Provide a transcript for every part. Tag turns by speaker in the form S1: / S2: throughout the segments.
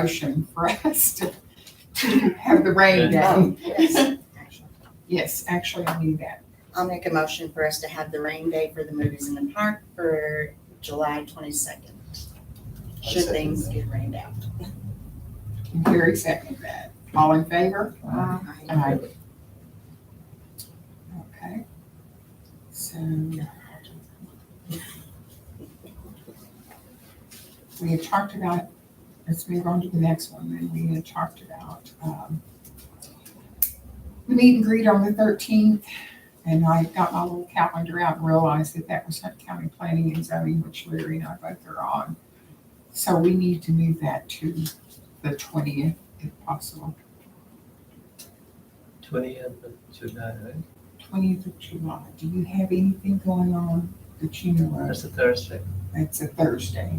S1: motion for us to, to have the rain down.
S2: Yes.
S1: Yes, actually, I knew that.
S2: I'll make a motion for us to have the rain day for the movies in the park for July twenty-second. Should things get rained out.
S1: And Gary seconded that. All in favor? Aye. Okay. So we had talked about, let's move on to the next one, then we had talked about, um, the meet and greet on the thirteenth, and I got my little calendar out and realized that that was Hunt County Planning and Zoning, which Larry and I both are on. So we need to move that to the twentieth if possible,
S3: twentieth of July, right?
S1: twentieth of July. Do you have anything going on that you know of?
S3: That's a Thursday.
S1: It's a Thursday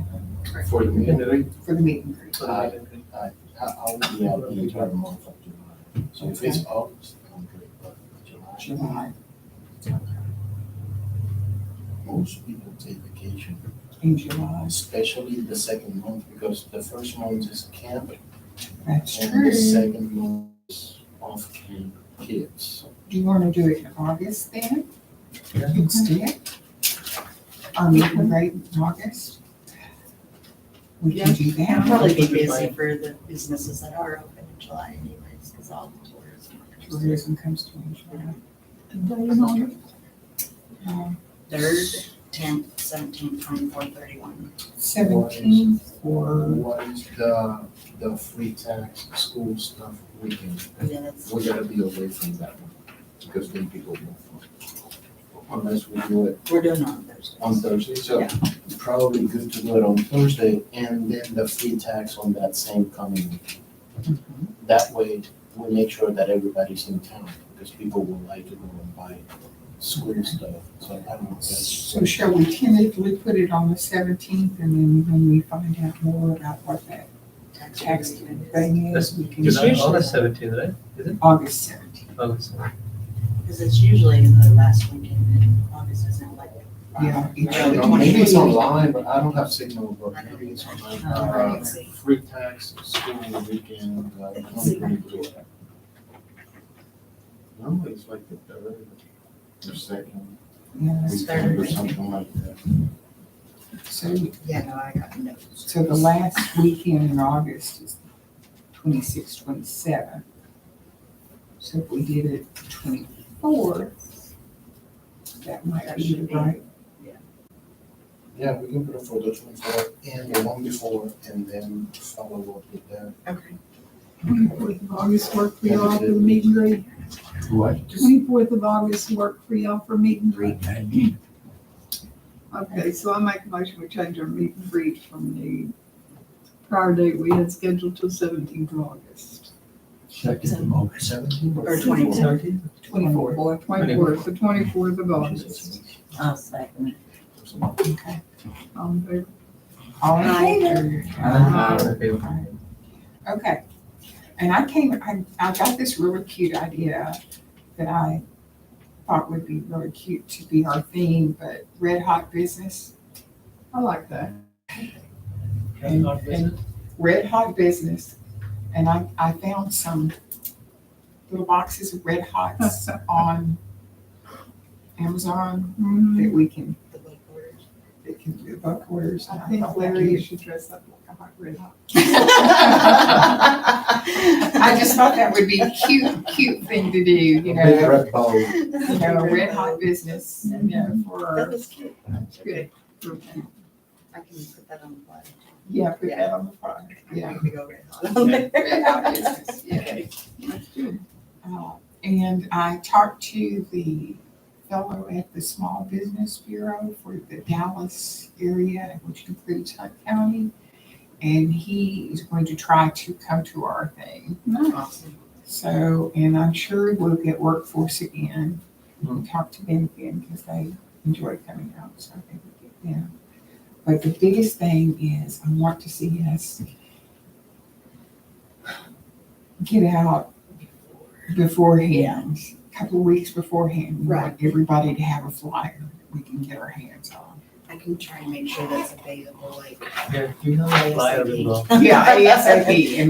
S3: For the meeting.
S1: for the meet and greet.
S3: For the meeting.
S4: I'll be out the entire month of July. So if it's August, I'm good, but July,
S1: July
S4: most people take vacation,
S1: in July.
S4: especially the second month, because the first month is camp.
S1: That's
S4: And the
S1: true.
S4: second month is off camp kids.
S1: Do you want to do it in August then?
S3: Yeah.
S1: Instead? Our meet and greet in August? We can do
S2: I'll
S1: that.
S2: probably be busy for the businesses that are open in July anyways, because all the tourism.
S1: Tourism comes to me in July.
S2: Third, tenth, seventeenth, twenty-fourth, thirty-one.
S1: Seventeenth or,
S4: What is the, the free tax school stuff weekend?
S2: Yeah, that's,
S4: We gotta be away from that one, because then people won't. Unless we do it
S2: we're doing it on Thursday.
S1: Um,
S4: on Thursday, so it's probably good to do it on Thursday and then the free tax on that same coming week. That way, we make sure that everybody's in town, because people will like to go and buy school stuff, so I don't know. that's-
S1: so shall we tentatively put it on the seventeenth and then when we find out more about what that tax
S2: agreement is.
S1: thing is, we can.
S3: July, August seventeenth, right?
S1: August seventeenth.
S3: August. 17th.
S2: Because it's usually the last weekend in August, isn't it? Like,
S1: Yeah.
S4: I don't know, Maybe it's online, but I don't have signal, but maybe it's online.
S2: uh,
S4: Uh,
S2: let's see.
S4: Free tax, school weekend, uh, I don't really do it. Normally it's like the third or second
S1: Yeah,
S4: weekend or something like that.
S1: so,
S2: Yeah, no, I got notes.
S1: so the last weekend in August is twenty-six, twenty-seven. So if we did it twenty-four, that might
S2: That
S1: be
S2: should
S1: the
S2: be.
S1: right.
S4: Yeah, we can put it for the twenty-four and the one before, and then follow up with that.
S2: Okay.
S5: Twenty-fourth of August work for y'all for the meet and greet.
S4: What?
S5: Twenty-fourth of August work for y'all for meet and greet. Okay, so I make a motion, we change our meet and greet from the prior date we had scheduled till seventeenth of August.
S4: Second of Seventeen or?
S2: Or 22.
S1: Twenty-four.
S5: Or twenty-fourth, the twenty-fourth of August.
S4: Jesus.
S2: I'll second.
S1: Okay.
S5: All in favor?
S1: All in
S2: Aye.
S1: favor?
S3: Uh, okay.
S1: Okay, and I came, I, I got this really cute idea that I thought would be really cute to be our theme, but red hot business.
S5: I like that.
S3: And our business?
S1: red hot business and I, I found some little boxes of red hots on Amazon
S5: Mhm.
S1: that we can,
S2: The book orders.
S1: that can do book orders.
S5: I
S1: And I
S5: think
S1: thought Larry,
S5: Larry
S1: you should-
S5: should dress up like a hot red hot.
S1: I just thought that would be a cute, cute thing to do, you
S4: A big
S1: know,
S4: red bowl.
S1: you know, red hot business, you
S5: Mm-hmm.
S1: know,
S2: That
S1: for,
S2: was cute.
S5: Good. Real cute.
S2: I can put that on the fly.
S1: yeah, put that on the front, yeah.
S2: We go red hot on there.
S1: Red hot business, yeah.
S2: Okay.
S1: Uh, And I talked to the fellow at the Small Business Bureau for the Dallas area, which includes Hunt County. And he is going to try to come to our thing.
S2: Awesome.
S1: So, and I'm sure we'll get workforce again. We'll talk to them again because they enjoy coming out, so I think we get them. But the biggest thing is I want to see us get out beforehand, a couple of weeks beforehand. we want Everybody to have a flyer that we can get our hands on.
S2: I I can try and make sure that's available, like.
S3: Yeah, do you have a flyer involved?
S1: Yeah, ASAP, and